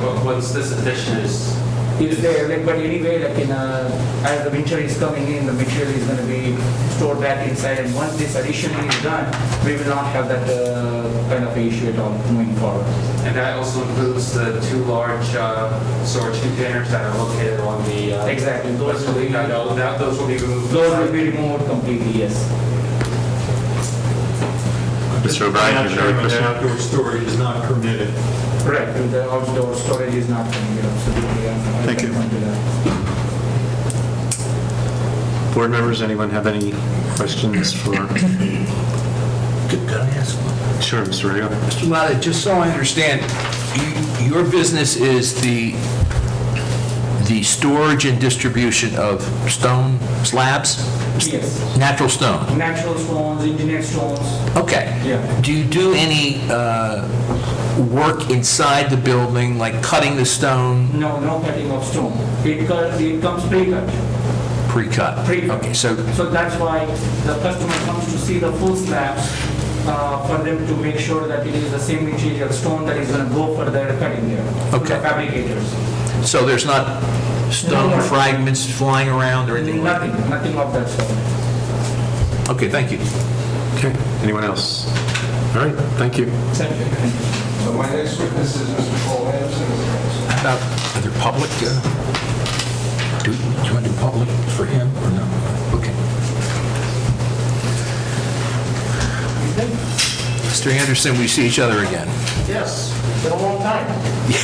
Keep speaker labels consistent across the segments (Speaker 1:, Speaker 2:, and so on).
Speaker 1: what- what's this addition is?
Speaker 2: It's there, like, but anyway, like in, uh, as the winter is coming in, the material is gonna be stored back inside, and once this addition is done, we will not have that, uh, kind of issue at all moving forward.
Speaker 1: And that also includes the two large uh, storage containers that are located on the. uh,
Speaker 2: Exactly, those will be,
Speaker 1: That, that- those will be removed.
Speaker 2: those will be removed completely, yes.
Speaker 3: Mr. O'Brien, you have another
Speaker 4: Madam Chairman,
Speaker 3: question?
Speaker 4: Outdoor storage is not permitted.
Speaker 2: Correct. The outdoor storage is not coming, here, absolutely. I- I
Speaker 3: Thank you.
Speaker 2: can point to that.
Speaker 3: Board members, anyone have any questions for,
Speaker 5: Could could I ask one?
Speaker 3: sure, Mr. Rayo?
Speaker 5: Mr. Lotta, just so I understand, you- your business is the, the storage and distribution of stone slabs?
Speaker 2: Yes,
Speaker 5: Natural stone?
Speaker 2: natural stones, engineered stones,
Speaker 5: Okay.
Speaker 2: Yeah.
Speaker 5: Do you do any uh, work inside the building, like cutting the stone
Speaker 2: no, no cutting of stone. It cut- it comes pre-cut.
Speaker 5: pre-cut?
Speaker 2: Pre-cut.
Speaker 5: Okay, so,
Speaker 2: So that's why the customer comes to see the full slabs, uh, for them to make sure that it is the same material stone that is gonna go for their cutting there. to the
Speaker 5: Okay.
Speaker 2: Fabricators.
Speaker 5: so there's not
Speaker 2: No,
Speaker 5: stone
Speaker 2: no.
Speaker 5: fragments flying around or anything like
Speaker 2: Nothing, nothing of that sort.
Speaker 5: that? Okay, thank you.
Speaker 3: Okay, anyone else? All right, thank you.
Speaker 6: So my next witness is Mr. Paul Anderson.
Speaker 5: About other public, uh, do do you want to do public for him or no? Okay. Mr. Anderson, we see each other again.
Speaker 7: Yes, it's been a long time.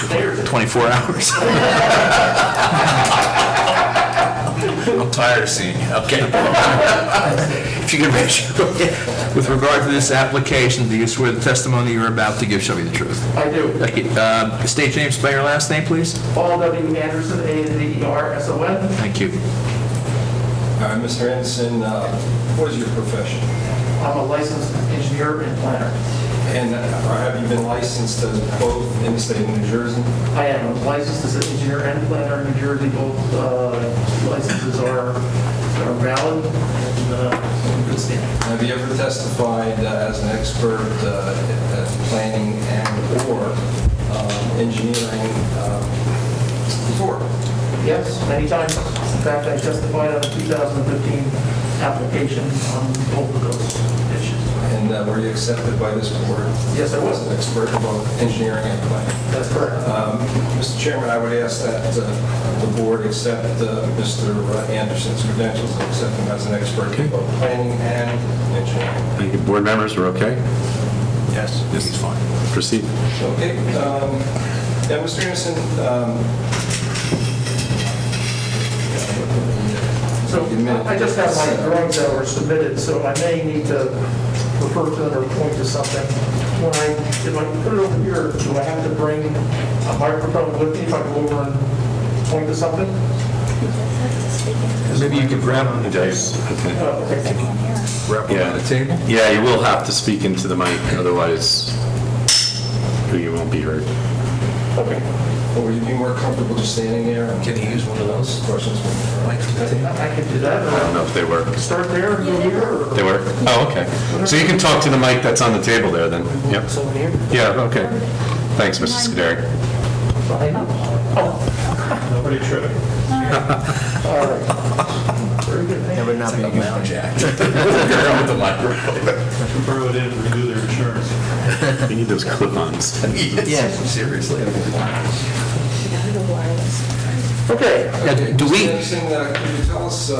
Speaker 7: There.
Speaker 5: 24 hours. I'm tired of seeing you, okay? If you could raise your, with regard to this application, do you swear the testimony you're about to give shall be the truth?
Speaker 7: I do.
Speaker 5: Okay, uh, State your name, spell your last name, please.
Speaker 7: Paul W. Anderson, A-N-D-E-R-S-O-N.
Speaker 5: Thank you.
Speaker 6: All right, Mr. Anderson, uh, what is your profession?
Speaker 7: I'm a licensed engineer and planner.
Speaker 6: And uh, have you been licensed as both in the state of New Jersey?
Speaker 7: I am licensed as an engineer and planner in New Jersey. Both uh, licenses are are valid and uh, in good standing.
Speaker 6: Have you ever testified uh, as an expert uh, at planning and/or um, engineering um, before?
Speaker 7: Yes, many times. In fact, I testified on the 2015 application on both of those issues.
Speaker 6: And uh, were you accepted by this board?
Speaker 7: Yes, I was.
Speaker 6: As an expert in both engineering and planning?
Speaker 7: That's correct.
Speaker 6: Um, Mr. Chairman, I would ask that uh, the board accept uh, Mr. Anderson's credentials and accept him as an expert in both planning and engineering.
Speaker 3: Thank you. Board members, we're okay?
Speaker 6: Yes.
Speaker 3: This is fine. Proceed.
Speaker 6: Okay. um, Yeah, Mr. Anderson, um,
Speaker 7: So I just have my drawings that were submitted, so I may need to refer to them or point to something. When I, if I put it over here, do I have to bring a microphone with me if I go over and point to something?
Speaker 3: Maybe you could grab on the dice.
Speaker 7: Oh, okay.
Speaker 3: Yeah, yeah, you will have to speak into the mic, otherwise you won't be heard.
Speaker 6: um, would you be more comfortable just standing there? Can you use one of those? Questions?
Speaker 7: I can do that,
Speaker 3: I don't
Speaker 7: or
Speaker 3: know if they work.
Speaker 7: start there, and go here, or...
Speaker 3: They work? Oh, okay. So you can talk to the mic that's on the table there, then? Yep.
Speaker 7: So here?
Speaker 3: Yeah, okay. Thanks, Mrs. Scuderi.
Speaker 7: I know.
Speaker 4: Nobody tripping.
Speaker 7: All right. Very good, thank you.
Speaker 5: not be Mount Jack.
Speaker 4: I should borrow it in and renew their insurance.
Speaker 3: You need those clip-ons.
Speaker 5: Yes, seriously.
Speaker 7: Okay,
Speaker 5: Yeah, do we-
Speaker 6: Mr. Anderson, uh, can you tell us, uh,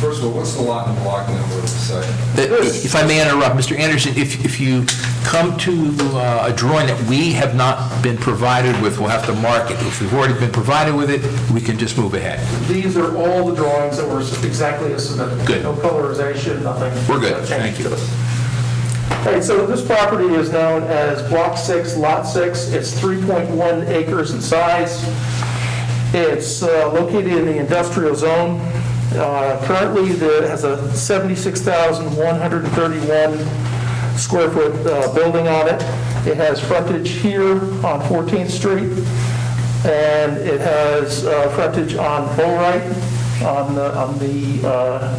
Speaker 6: first of all, what's the lot and block number of the site?
Speaker 5: If I may interrupt, Mr. Anderson, if, if you come to uh, a drawing that we have not been provided with, we'll have to mark it. If we've already been provided with it, we can just move ahead.
Speaker 7: these are all the drawings that were exactly as submitted.
Speaker 5: Good.
Speaker 7: No colorization, nothing.
Speaker 5: We're good.
Speaker 7: No change
Speaker 5: Thank you.
Speaker 7: to it. All right, so this property is known as Block 6, Lot 6. It's 3.1 acres in size. It's uh, located in the industrial zone. Uh, Currently, it has a 76,131 square foot uh, building on it. It has frontage here on 14th Street and it has uh, frontage on Bullwright, on the, on the, uh,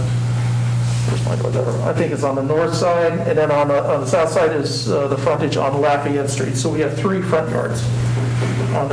Speaker 7: where's my door? There. I think it's on the north side, and then on the, on the south side is uh, the frontage on Lafayette Street. So we have three front yards on